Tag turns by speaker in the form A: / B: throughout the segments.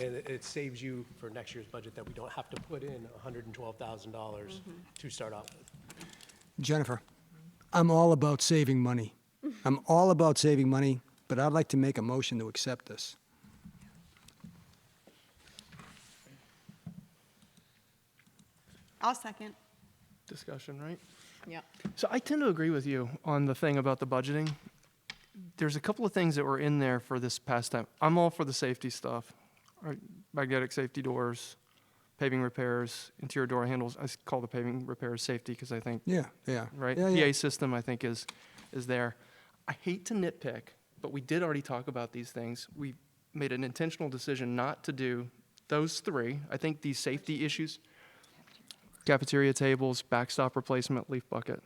A: And it- it saves you for next year's budget that we don't have to put in $112,000 to start off with.
B: Jennifer, I'm all about saving money. I'm all about saving money, but I'd like to make a motion to accept this.
C: I'll second.
D: discussion, right?
C: Yep.
D: So I tend to agree with you on the thing about the budgeting. There's a couple of things that were in there for this past time. I'm all for the safety stuff, right? magnetic safety doors, paving repairs, interior door handles. I s- call the paving repairs safety because I think
B: Yeah, yeah.
D: right?
B: Yeah, yeah.
D: PA system, I think, is, is there. I hate to nitpick, but we did already talk about these things. We made an intentional decision not to do those three. I think these safety issues, cafeteria tables, backstop replacement, leaf bucket.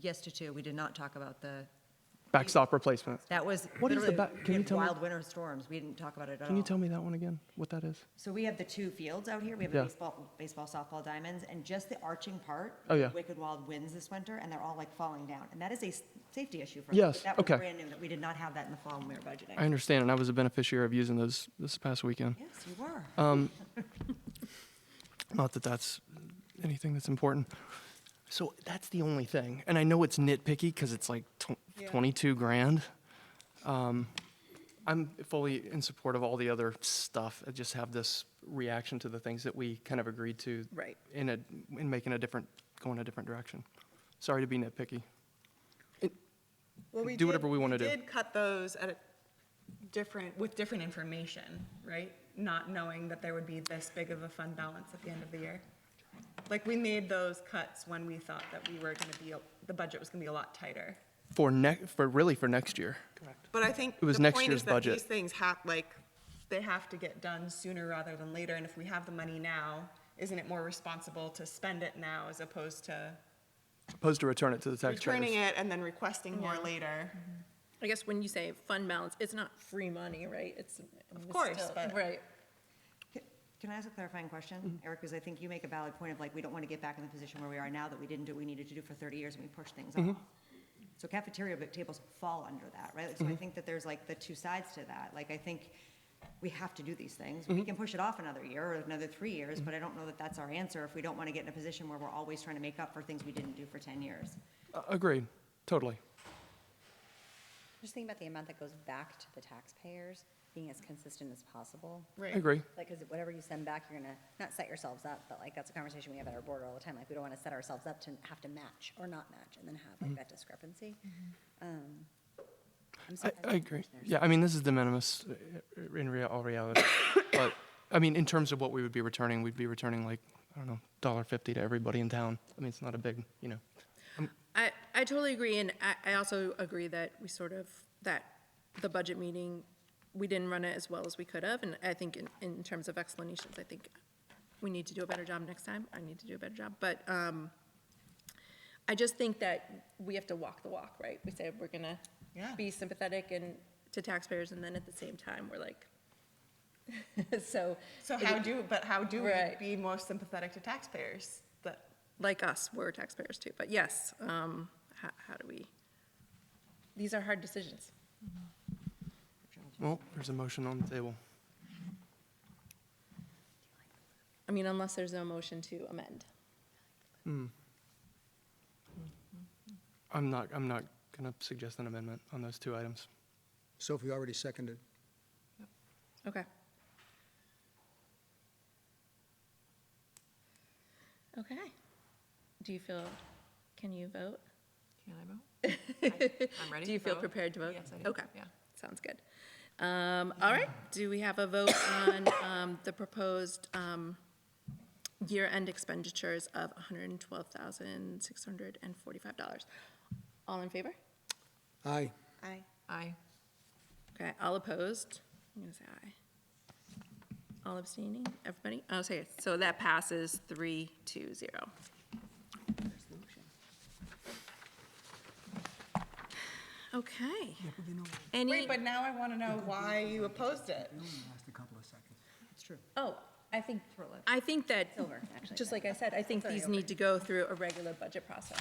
E: Yes to two, we did not talk about the,
D: Backstop replacement.
E: that was
D: What is the
E: literally,
D: back- can
E: we
D: you
E: had
D: tell me-
E: wild winter storms, we didn't talk about it at all.
D: Can you tell me that one again, what that is?
E: So we have the two fields out here, we have a
D: Yeah.
E: baseball, baseball, softball diamonds, and just the arching part.
D: Oh, yeah.
E: Wicked Wild winds this winter, and they're all like falling down, and that is a s- safety issue for us.
D: Yes,
E: That was
D: okay.
E: brand new, that we did not have that in the fall when we were budgeting.
D: I understand, and I was a beneficiary of using those this past weekend.
E: Yes, you were.
D: Not that that's anything that's important. So that's the only thing. And I know it's nitpicky because it's like tw- 22 grand. Um, I'm fully in support of all the other stuff. I just have this reaction to the things that we kind of agreed to.
C: Right.
D: In a, in making a different, going a different direction. Sorry to be nitpicky.
C: Well, we
D: Do whatever
C: did-
D: we wanna do.
C: We did cut those at a different, with different information, right? Not knowing that there would be this big of a fund balance at the end of the year. Like, we made those cuts when we thought that we were gonna be, a- the budget was gonna be a lot tighter.
D: For next, for really for next year.
C: But I think
D: It was
C: the
D: next
C: point
D: year's
C: is that
D: budget.
C: these things have, like, they have to get done sooner rather than later, and if we have the money now, isn't it more responsible to spend it now as opposed to
D: Opposed to return it to the taxpayers.
C: returning it and then requesting more later?
F: I guess when you say fund balance, it's not free money, right? It's. Of
C: course, but-
F: Right.
E: Can I ask a clarifying question, Eric? Because I think you make a valid point of like, we don't want to get back in the position where we are now that we didn't do what we needed to do for 30 years and we pushed things off. So cafeteria but tables fall under that, right? So I think that there's like the two sides to that. Like, I think we have to do these things. We can push it off another year or another three years, but I don't know that that's our answer if we don't want to get in a position where we're always trying to make up for things we didn't do for 10 years.
D: Uh, Agreed, totally.
G: Just think about the amount that goes back to the taxpayers, being as consistent as possible.
D: I agree.
G: Like, because whatever you send back, you're gonna, not set yourselves up, but like, that's a conversation we have at our board all the time. Like, we don't want to set ourselves up to have to match or not match and then have like that discrepancy. Um, I'm
D: Mm-hmm. I,
G: surprised the
D: I agree.
G: commissioners-
D: Yeah, I mean, this is de minimis uh, uh, in rea- all reality. But, I mean, in terms of what we would be returning, we'd be returning like, I don't know, dollar fifty to everybody in town. I mean, it's not a big, you know.
F: I, I totally agree, and I, I also agree that we sort of, that the budget meeting, we didn't run it as well as we could have, and I think in, in terms of explanations, I think we need to do a better job next time. I need to do a better job, but, um, I just think that we have to walk the walk, right? We said we're gonna
C: Yeah.
F: be sympathetic and, to taxpayers, and then at the same time, we're like, so.
C: So how do, but how do we
F: Right.
C: be more sympathetic to taxpayers? That,
F: like us, we're taxpayers too, but yes, um, how, how do we? These are hard decisions.
D: Well, there's a motion on the table.
F: I mean, unless there's no motion to amend.
D: I'm not, I'm not gonna suggest an amendment on those two items.
B: Sophie already seconded.
F: Okay. Okay. Do you feel, can you vote?
H: Can I vote? I- I'm ready.
F: Do you
H: to
F: feel
H: vote.
F: prepared to vote?
H: Yes, I do.
F: Okay.
H: Yeah.
F: Sounds good. Um, all right, do we have a vote on, um, the proposed, um, year-end expenditures of hundred and twelve thousand, six hundred and forty-five dollars? All in favor?
B: Aye.
C: I,
H: Aye.
F: Okay, all opposed? I'm gonna say aye. All abstaining, everybody? Oh, sorry, so that passes three to zero. Okay. Any,
C: wait, but now I want to know why you opposed it.
B: Last a couple of seconds.
F: oh, I think, I think that, just like I said, I think these need to go through a regular budget process.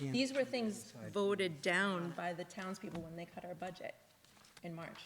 F: These were things voted down by the townspeople when they cut our budget in March.